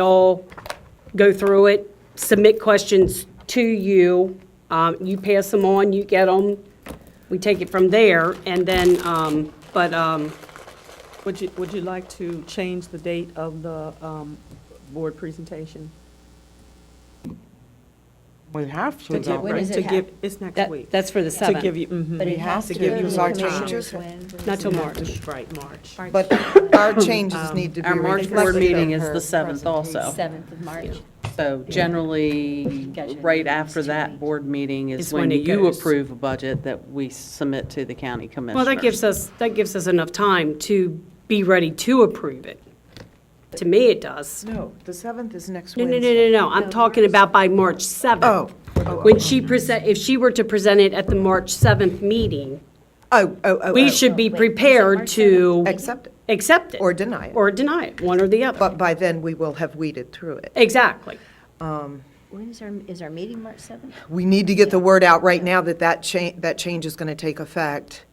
y'all go through it, submit questions to you, um, you pass them on, you get them, we take it from there, and then, um, but, um, Would you, would you like to change the date of the um, board presentation? We have to, To give- though. When is to it hap- give- It's next that, week. that's for the To give 7th, you, mhm. But it We have has to to give go to you the our commissioners time. when? not till March. Right, March. but our changes need to be Um, Our March board reflected in meeting is her the 7th also. Seventh of March. So generally, Gotcha. right after that board meeting Is is when when it you goes. approve a budget that we submit to the county commissioner. Well, that gives us, that gives us enough time to be ready to approve it. To me, it does. No, the 7th is next No, no, Wednesday. no, no, no, I'm talking about by March 7th. Oh, oh, When she present, if she were to present it at the March 7th meeting, oh, oh, oh. we oh. should be Wait, is it prepared March to Accept it, accept it. or deny it. Or deny it, one or the other. But by then, we will have weeded through it. Exactly. When is our, is our meeting March seventh? We need to get the word out right now that that change, that change is going to take effect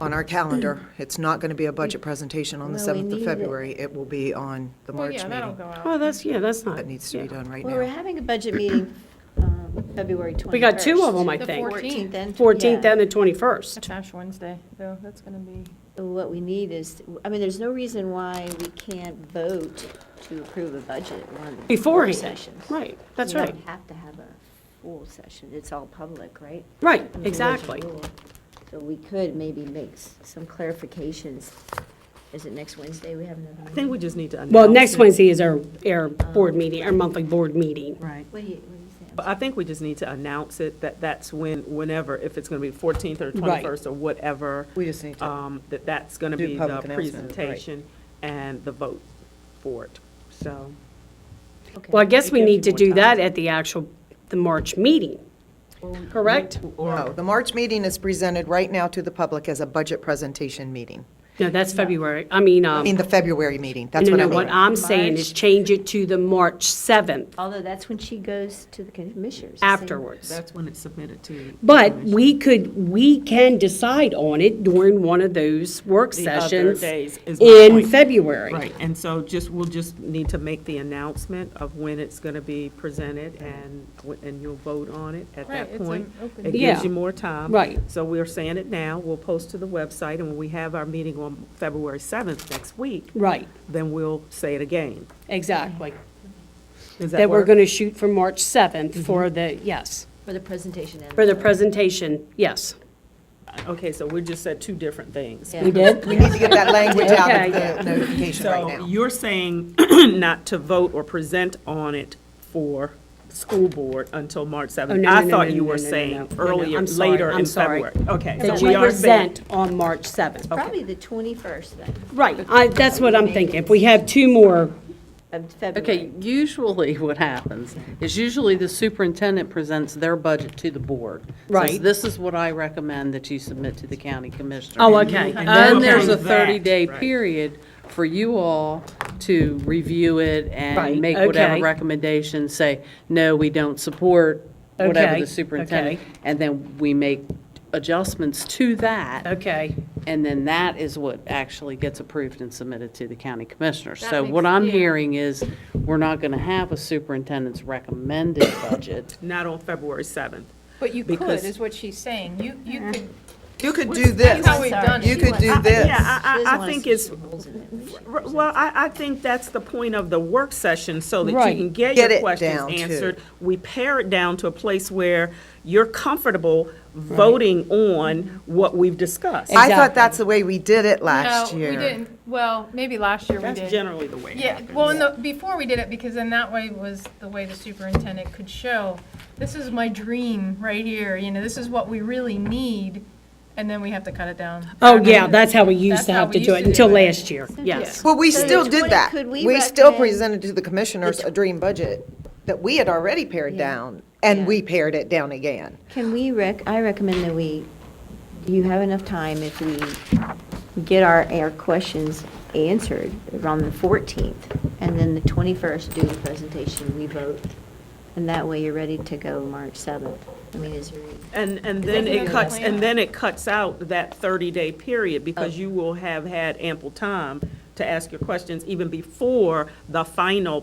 on our calendar. It's not going to be a budget presentation on the Well, we 7th of need it. February. It will be on the March meeting. Oh, that's, yeah, that's not. That needs to be yeah. done right Well, we're now. having a budget meeting, um, February twenty-first. We got two of them, I The think. 14th. Fourteenth and. 14th yeah. and the 21st. Ash Wednesday, though, that's going to be. What we need is, I mean, there's no reason why we can't vote to approve a budget at one of the. board Beforehand. sessions. Right, that's You right. don't have to have a full session, it's all public, right? Right, I mean, there's a exactly. rule. So we could maybe make s- some clarifications. Is it next Wednesday we have another I meeting? think we just need to announce. Well, next it. Wednesday is our, our board meeting, our monthly board meeting. Right. What do you, what do you say? But I think we just need to announce it, that that's when, whenever, if it's going to be 14th or 21st or whatever, We just need to, um, that that's going to Do be the public announcement, right. presentation and the vote for it, so. Okay. Well, I guess we It gives need to you do more that time. at the actual, the March meeting, correct? no, the March meeting is presented right now to the public as a budget presentation meeting. No, that's February, I mean, I um, mean, the February meeting, no, that's what I no, mean. what I'm saying is change it to the March 7th Although that's when she goes to the commissioners. the same- afterwards. That's when it's submitted to. But we could, we can decide on it during one of those work The other sessions days is my in point. February. Right, and so just, we'll just need to make the announcement of when it's going to be presented, and, wh- and you'll vote on it at Right, that it's an point. open It Yeah. gives you more time. Right. So we're saying it now, we'll post to the website, and when we have our meeting on February 7th next week, Right, then we'll say it again. exactly. Does that That we're work? going to shoot for March Mm-hmm. 7th for the, yes, For the presentation. and- for the presentation, yes. Okay, so we just said two different things. Yeah. We need to get that language out of Okay. the notification right So now. you're saying not to vote or present on it for school board until March Oh, no, 7th? no, I no, thought no, you no, were no, no, no. saying No, no, earlier, I'm sorry, later I'm in sorry. February. Okay. so That we you are saying- present on March 7th. Probably the twenty-first then, Right, I, that's what I'm thinking. If we have two more, of February. Okay, usually what happens is usually the superintendent presents their budget to the board. Says, Right. This is what I recommend that you submit to the county commissioner. oh, okay. And there's a Okay, that, 30-day right. period for you all to review it Right, and make whatever okay. recommendations, say, no, we don't support whatever Okay, the superintendent. okay. And then we make adjustments to that, Okay, and then that is what actually gets approved and submitted to the county commissioner. So makes- what I'm yeah. hearing is, we're not going to have a superintendent's recommended budget. Not on February 7th. But you could, Because- is what she's saying. You, you could. You could do this. how we've done it. You could do Yeah, this. Yeah, I, She doesn't I- I want us think to it's, put rules in it. We should r- well, I, I think that's the point of the work session, so that you Right. can get Get your it down to- questions answered. We pare it down to a place where you're comfortable voting on what we've discussed. I Exactly. thought that's the way we did it last year. No, we didn't. Well, maybe last year we did. That's generally the way it Yeah, happens. well, in the, before we did it, because then that way was the way the superintendent could show, this is my dream right here, you know, this is what we really need, and then we have to cut it down. oh, yeah, that's how we used That's to how have to we do used it to do until it. last year, yes. But we So still the did 20 that. could we We still recommend- presented to the commissioners a dream budget that we had already pared down, and we pared it down again. Can we rec, I recommend that we, do you have enough time if we get our, our questions answered around the 14th? And then the 21st, do the presentation, we vote, and that way you're ready to go March 7th. I mean, is there? And, and then another it cuts, plan. and then it cuts out that 30-day period, because you will have had ample time to ask your questions even before the final